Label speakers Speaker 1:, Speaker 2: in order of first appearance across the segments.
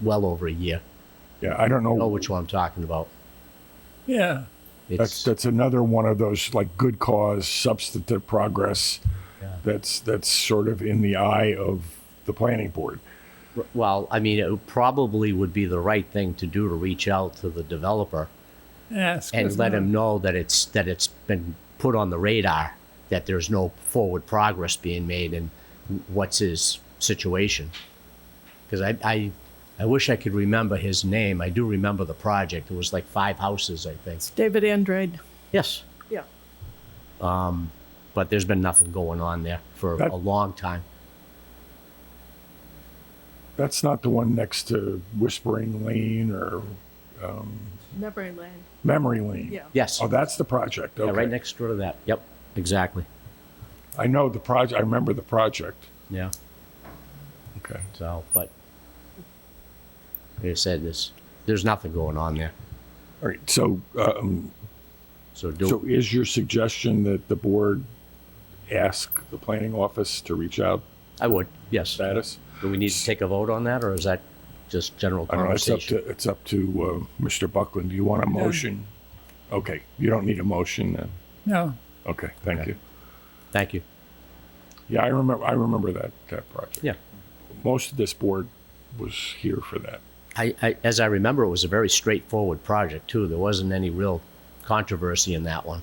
Speaker 1: well over a year.
Speaker 2: Yeah, I don't
Speaker 1: You know
Speaker 2: know.
Speaker 1: which one I'm talking about.
Speaker 2: Yeah. That's,
Speaker 1: It's,
Speaker 2: that's another one of those like good cause substantive progress
Speaker 1: Yeah.
Speaker 2: that's, that's sort of in the eye of the planning board.
Speaker 1: well, I mean, it probably would be the right thing to do to reach out to the developer
Speaker 3: Ask.
Speaker 1: and
Speaker 3: if
Speaker 1: let
Speaker 3: not-
Speaker 1: him know that it's, that it's been put on the radar, that there's no forward progress being made and what's his situation. Because I, I, I wish I could remember his name. I do remember the project. It was like five houses, I think.
Speaker 4: It's David Andrade.
Speaker 1: Yes,
Speaker 4: Yeah.
Speaker 1: but there's been nothing going on there for
Speaker 2: That-
Speaker 1: a long time.
Speaker 2: That's not the one next to Whispering Lane or
Speaker 4: Memory Lane.
Speaker 2: Memory Lane.
Speaker 4: Yeah.
Speaker 1: Yes.
Speaker 2: Oh, that's the project.
Speaker 1: Yeah,
Speaker 2: Okay.
Speaker 1: right next door to that. Yep, exactly.
Speaker 2: I know the project. I remember the project.
Speaker 1: Yeah.
Speaker 2: Okay.
Speaker 1: So, but like I said, there's there's nothing going on there.
Speaker 2: All right. So, um,
Speaker 1: So do
Speaker 2: so is your suggestion that the board ask the planning office to reach out
Speaker 1: I would yes.
Speaker 2: status?
Speaker 1: Do we need to take a vote on that, or is that just general
Speaker 2: I don't know. It's up to
Speaker 1: conversation?
Speaker 2: it's up to uh, Mr. Buckland. Do you want a motion? Okay. You don't need a motion then.
Speaker 3: No,
Speaker 2: Okay. Thank you.
Speaker 1: Thank you.
Speaker 2: Yeah, I remember. I remember that that project.
Speaker 1: Yeah.
Speaker 2: Most of this board was here for that.
Speaker 1: I, I as I remember, it was a very straightforward project too. There wasn't any real controversy in that one.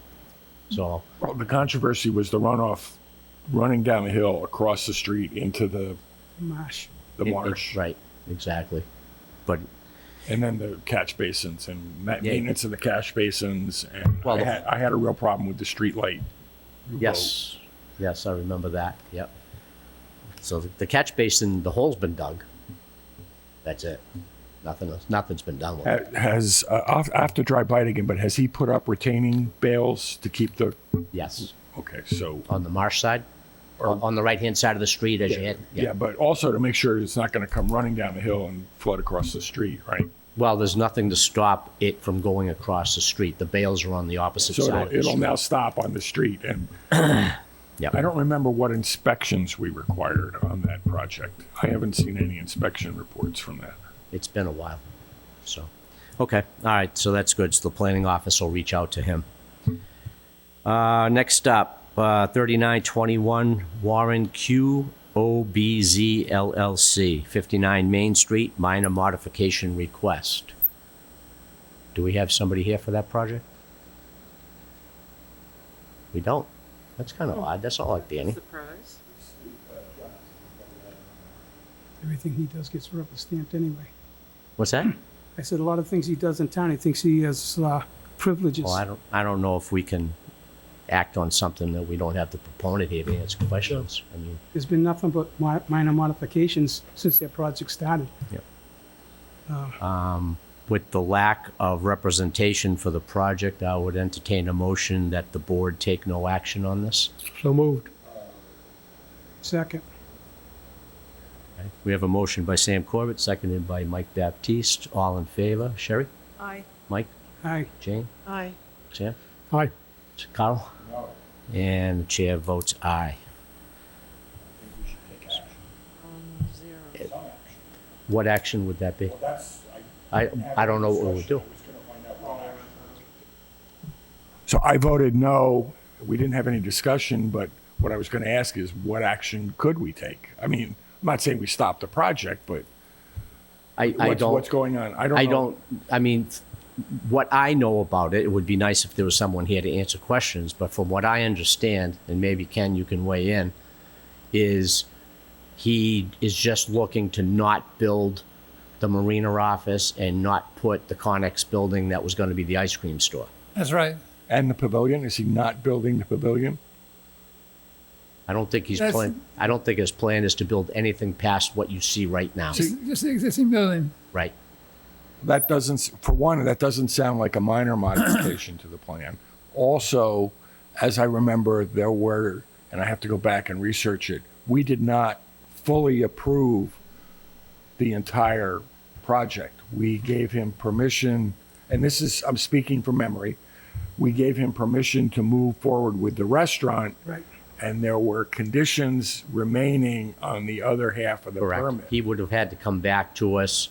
Speaker 1: So
Speaker 2: Well, the controversy was the runoff running down the hill across the street into the
Speaker 4: Marsh.
Speaker 2: the
Speaker 1: it- it-
Speaker 2: marsh.
Speaker 1: right, exactly. But
Speaker 2: And then the catch basins and ma-
Speaker 1: Yeah.
Speaker 2: maintenance of the catch basins. And
Speaker 1: Well,
Speaker 2: I,
Speaker 1: the-
Speaker 2: had, I had a real problem with the street light.
Speaker 1: Yes, yes, I remember that, yep. So the- the catch basin, the hole's been dug. That's it. Nothing, else- nothing's been done with it.
Speaker 2: Ha- Has, uh, off- I have to try bite again, but has he put up retaining bales to keep the,
Speaker 1: Yes,
Speaker 2: okay, so,
Speaker 1: on the marsh side, on on the right-hand side of the street as you hit.
Speaker 2: Um, yeah, but also to make sure it's not going to come running down the hill and flood across the street, right?
Speaker 1: Well, there's nothing to stop it from going across the street. The bales are on the opposite
Speaker 2: So
Speaker 1: side. of
Speaker 2: it'll,
Speaker 1: the
Speaker 2: it'll
Speaker 1: street.
Speaker 2: now stop on the street. And
Speaker 1: Yeah.
Speaker 2: I don't remember what inspections we required on that project. I haven't seen any inspection reports from that.
Speaker 1: It's been a while, so. Okay, all right, so that's good. So the planning office will reach out to him. Uh, next up, uh, thirty-nine twenty-one Warren Q O B Z LLC, fifty-nine Main Street, minor modification request. Do we have somebody here for that project? We don't. That's kind of odd. That's not like Danny.
Speaker 5: Surprise.
Speaker 3: everything he does gets rubber stamped anyway.
Speaker 1: What's that?
Speaker 3: I said a lot of things he does in town, he thinks he has uh, privileges.
Speaker 1: Well, I don't, I don't know if we can act on something that we don't have the proponent here to answer questions. I mean,
Speaker 3: There's been nothing but mi- minor modifications since that project started.
Speaker 1: with the lack of representation for the project, I would entertain a motion that the board take no action on this.
Speaker 3: So moved. Second.
Speaker 1: We have a motion by Sam Corbett, seconded by Mike Baptiste. All in favor? Sherry?
Speaker 4: Aye.
Speaker 1: Mike?
Speaker 3: Aye.
Speaker 1: Jane?
Speaker 4: Aye.
Speaker 1: Sam?
Speaker 3: Aye.
Speaker 1: Carl? And the chair votes aye.
Speaker 5: Um, zero.
Speaker 1: What action would that be? I, I don't know what we would do.
Speaker 2: So I voted no. We didn't have any discussion, but what I was going to ask is what action could we take? I mean, I'm not saying we stop the project, but
Speaker 1: I, I
Speaker 2: what's,
Speaker 1: don't.
Speaker 2: what's going on? I don't
Speaker 1: I
Speaker 2: know.
Speaker 1: don't, I mean, what I know about it, it would be nice if there was someone here to answer questions, but from what I understand, and maybe Ken, you can weigh in, is he is just looking to not build the marina office and not put the Connex building that was going to be the ice cream store.
Speaker 6: That's right.
Speaker 2: And the pavilion? Is he not building the pavilion?
Speaker 1: I don't think he's
Speaker 6: That's-
Speaker 1: plan, I don't think his plan is to build anything past what you see right now,
Speaker 6: Just, just the existing building.
Speaker 1: right?
Speaker 2: That doesn't, s- for one, that doesn't sound like a minor modification to the plan. Also, as I remember, there were, and I have to go back and research it, we did not fully approve the entire project. We gave him permission, and this is, I'm speaking from memory, we gave him permission to move forward with the restaurant.
Speaker 3: Right.
Speaker 2: And there were conditions remaining on the other half of the
Speaker 1: Correct.
Speaker 2: permit.
Speaker 1: He would have had to come back to us